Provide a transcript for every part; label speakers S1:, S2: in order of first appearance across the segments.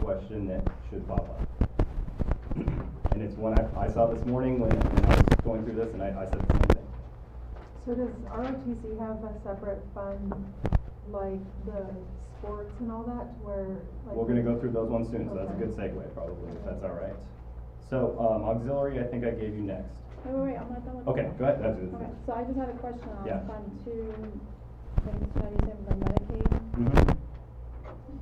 S1: question that should pop up. And it's one I, I saw this morning when, when I was going through this, and I, I said the same thing.
S2: So does ROTC have a separate fund, like the sports and all that, to where? like-
S1: We're gonna go through those ones soon, so that's a
S2: Okay.
S1: good segue probably, if that's all right. So, um, auxiliary, I think I gave you next.
S3: Wait, wait, wait, I'm not done with.
S1: Okay,
S3: that.
S1: go ahead, that's it.
S3: Okay, so I just had a question on
S1: Yeah.
S3: Fund Two, things that you said for Medicaid.
S1: Mhm.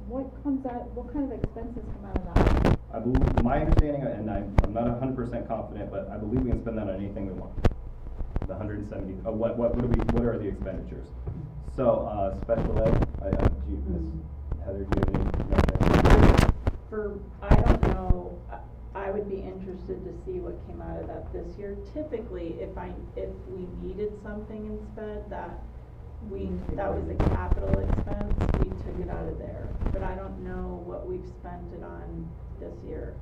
S3: What comes out, what kind of expenses come out of that?
S1: I believe, my understanding, and I'm, I'm not hundred percent confident, but I believe we can spend that on anything we want. The hundred and seventy, uh, what, what, what are we, what are the expenditures? So, uh, special ed, I, I, do you, Ms. Heather, do you have any?
S4: For, I don't know, I- I would be interested to see what came out of that this year. Typically, if I, if we needed something in sped, that we, that was a capital expense, we took it out of there. But I don't know what we've spent it on this year.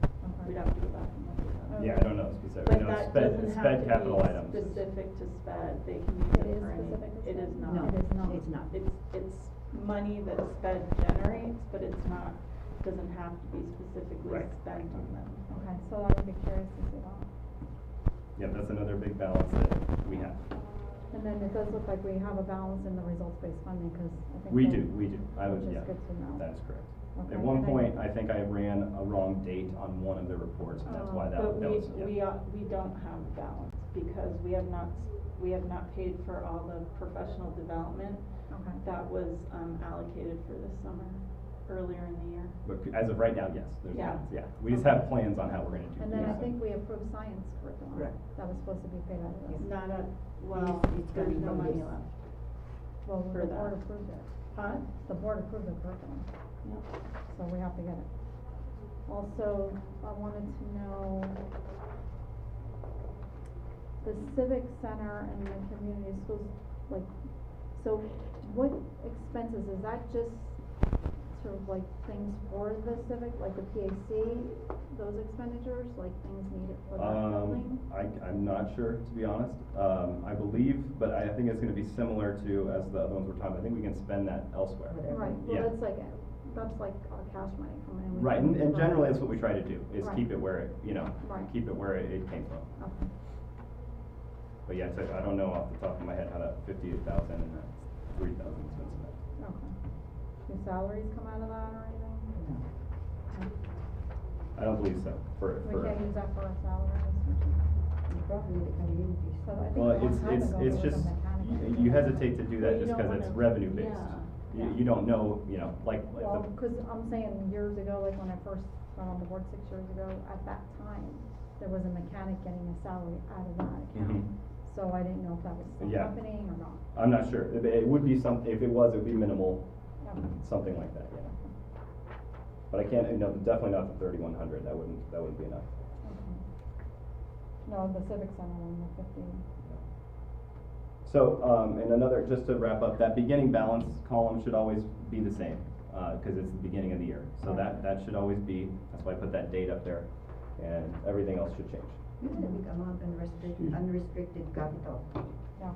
S4: We'd have to go back and look at that.
S1: Yeah, I don't know specifically, no,
S4: But that
S1: sped,
S4: doesn't have
S1: sped
S4: to
S1: capital
S4: be
S1: items. is-
S4: specific to sped, they
S3: It
S4: can use it
S3: is
S4: for anything.
S3: specific to
S4: It is
S3: sped?
S4: not.
S5: No,
S3: It is not.
S5: It's not.
S4: It's, it's money that sped generates, but it's not, doesn't have to be specifically
S1: Right.
S4: spent on them.
S3: Okay, so I would be curious to see that.
S1: Yeah, that's another big balance that we have.
S3: And then it does look like we have a balance in the results-based funding, because I think.
S1: We
S3: that-
S1: do, we do, I would,
S3: Which
S1: yeah,
S3: is good to know.
S1: that is correct.
S3: Okay,
S1: At one
S3: and I-
S1: point, I think I ran a wrong date on one of the reports, and that's why that,
S4: But
S1: that
S4: we,
S1: was, yeah.
S4: we, are- we don't have a balance because we have not, we have not paid for all the professional development
S3: Okay.
S4: that was um, allocated for this summer, earlier in the year.
S1: But c- as of right now, yes, there's,
S4: Yeah.
S1: plans, yeah, we just have plans on how we're gonna do.
S3: And then I
S1: things.
S3: think we approved science curriculum.
S5: Correct.
S3: That was supposed to be paid out of this.
S4: Not a, well,
S5: It's- it's gotta
S4: there's
S5: be
S4: no
S5: from
S4: money
S5: this.
S4: left.
S3: Well,
S4: For
S3: the board
S4: that.
S3: approved it.
S4: Huh?
S3: The board approved the curriculum.
S4: Yep.
S3: So we have to get it. Also, I wanted to know the civic center and the community schools, like, so what expenses, is that just sort of like things for the civic, like the PAC, those expenditures, like things needed for that building?
S1: Um, I, I'm not sure, to be honest, um, I believe, but I think it's gonna be similar to, as the other ones we're talking, about. I think we can spend that elsewhere.
S5: Whatever.
S3: Right,
S1: yeah.
S3: well, that's like, that's like our cash money coming in. We
S1: Right, and,
S3: can
S1: and
S3: spend
S1: generally,
S3: it.
S1: that's what we try to do, is
S3: Right.
S1: keep it where it, you know,
S3: Right.
S1: keep it where it it came from.
S3: Okay.
S1: But yeah, so I don't know off the top of my head how that fifty-eight thousand and that three thousand is spent.
S3: Okay. Do salaries come out of that or anything?
S5: No.
S1: I don't believe so, for,
S3: We
S1: for.
S3: can't use that for our salaries.
S5: You probably need to cut it in piece.
S3: So I think
S1: Well,
S3: a long
S1: it's,
S3: time
S1: it's,
S3: ago
S1: it's
S3: there was
S1: just,
S3: a
S1: you-
S3: mechanic.
S1: you hesitate to do
S4: Well,
S1: that
S4: you
S1: just
S4: don't
S1: because it's
S4: wanna-
S1: revenue-based.
S4: yeah,
S1: You,
S4: yeah.
S1: you don't know, you know, like, like
S3: Well,
S1: the,
S3: cause I'm saying years ago, like when I first went on the board six years ago, at that time, there was a mechanic getting a salary out of that account.
S1: Mhm.
S3: So I didn't know if that was still
S1: Yeah.
S3: happening or not.
S1: I'm not sure, it, it would be some, if it was, it would be minimal,
S3: Okay.
S1: something like that, yeah. But I can't, no, definitely not the thirty-one hundred, that wouldn't, that wouldn't be enough.
S3: Okay. No, the civic center and the fifty.
S1: So, um, and another, just to wrap up, that beginning balance column should always be the same, uh, cause it's the beginning of the year. So that, that should always be, that's why I put that date up there, and everything else should change.
S5: You gotta become un- unrestricted, unrestricted capital.
S3: Yeah.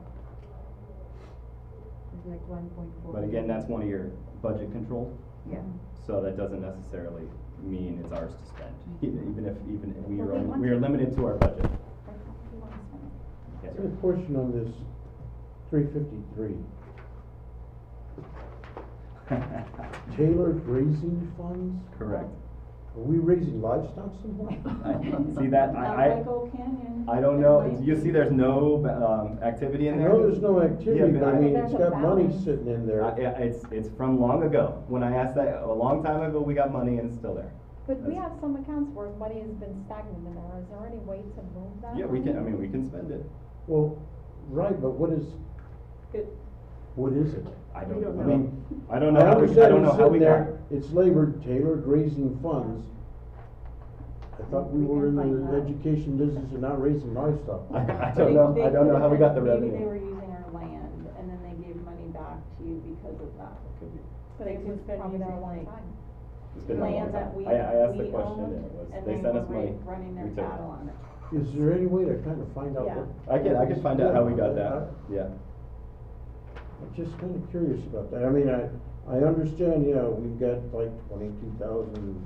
S5: It's like one point four.
S1: But again, that's one of your budget controls,
S5: Yeah.
S1: so that doesn't necessarily mean it's ours to spend, even even if, even if we
S3: But
S1: are,
S3: we want
S1: we are
S3: to-
S1: limited to our budget.
S3: That's how we want to spend it.
S1: Yes,
S6: I
S1: sir.
S6: have a question on this three fifty-three, Taylor Grazing Funds?
S1: Correct.
S6: Are we raising livestock somewhere?
S1: I- See that, I,
S4: At Lake Canyon.
S1: I, I don't
S4: there
S1: know,
S4: might
S1: you
S4: be-
S1: see there's no, um, activity
S6: I
S1: in there?
S6: know there's no activity,
S1: Yeah,
S6: but I
S1: but
S6: mean,
S3: there's
S6: it's
S3: a
S6: got money
S3: balance.
S6: sitting in there.
S1: Uh, yeah, it's, it's from long ago. When I asked that, a long time ago, we got money and it's still there.
S3: But we
S1: That's-
S3: have some accounts where money has been stagnant in there, is there any way to move that?
S1: Yeah, we
S3: money?
S1: can, I mean, we can spend it.
S6: Well, right, but what is,
S4: Good.
S6: what is it?
S1: I
S4: We
S1: don't, I
S4: don't know.
S1: mean, I don't
S6: I
S1: know how we, I don't
S6: understand
S1: know
S6: it's
S1: how we
S6: sitting
S1: got.
S6: there, it's labored Taylor Grazing Funds. I thought we
S4: We
S6: were in
S4: can find
S6: the
S4: out.
S6: education business and not raising livestock.
S1: I, I
S4: They-
S1: don't know,
S4: they
S1: I don't know how we got the
S4: could've been- Maybe
S1: revenue.
S4: they were using our land and then they gave money back to you because of that.
S1: Could be.
S3: But
S4: They
S3: it
S4: could
S3: was
S4: spend
S3: probably there a
S4: using,
S3: long
S4: like,
S3: time.
S1: It's been a long
S4: Land
S1: time.
S4: that we-
S1: I, I asked the
S4: we
S1: question and
S4: owned,
S1: it was,
S4: and
S1: they
S4: they
S1: sent
S4: were
S1: us money.
S4: ra- running their
S1: we took it.
S4: cattle on it.
S6: Is there any way to kind of find out
S4: Yeah.
S6: what?
S1: I can, I can find out how we got
S6: Yeah.
S1: that, yeah.
S6: I'm just kind of curious about that. I mean, I, I understand, you know, we've got like twenty-two thousand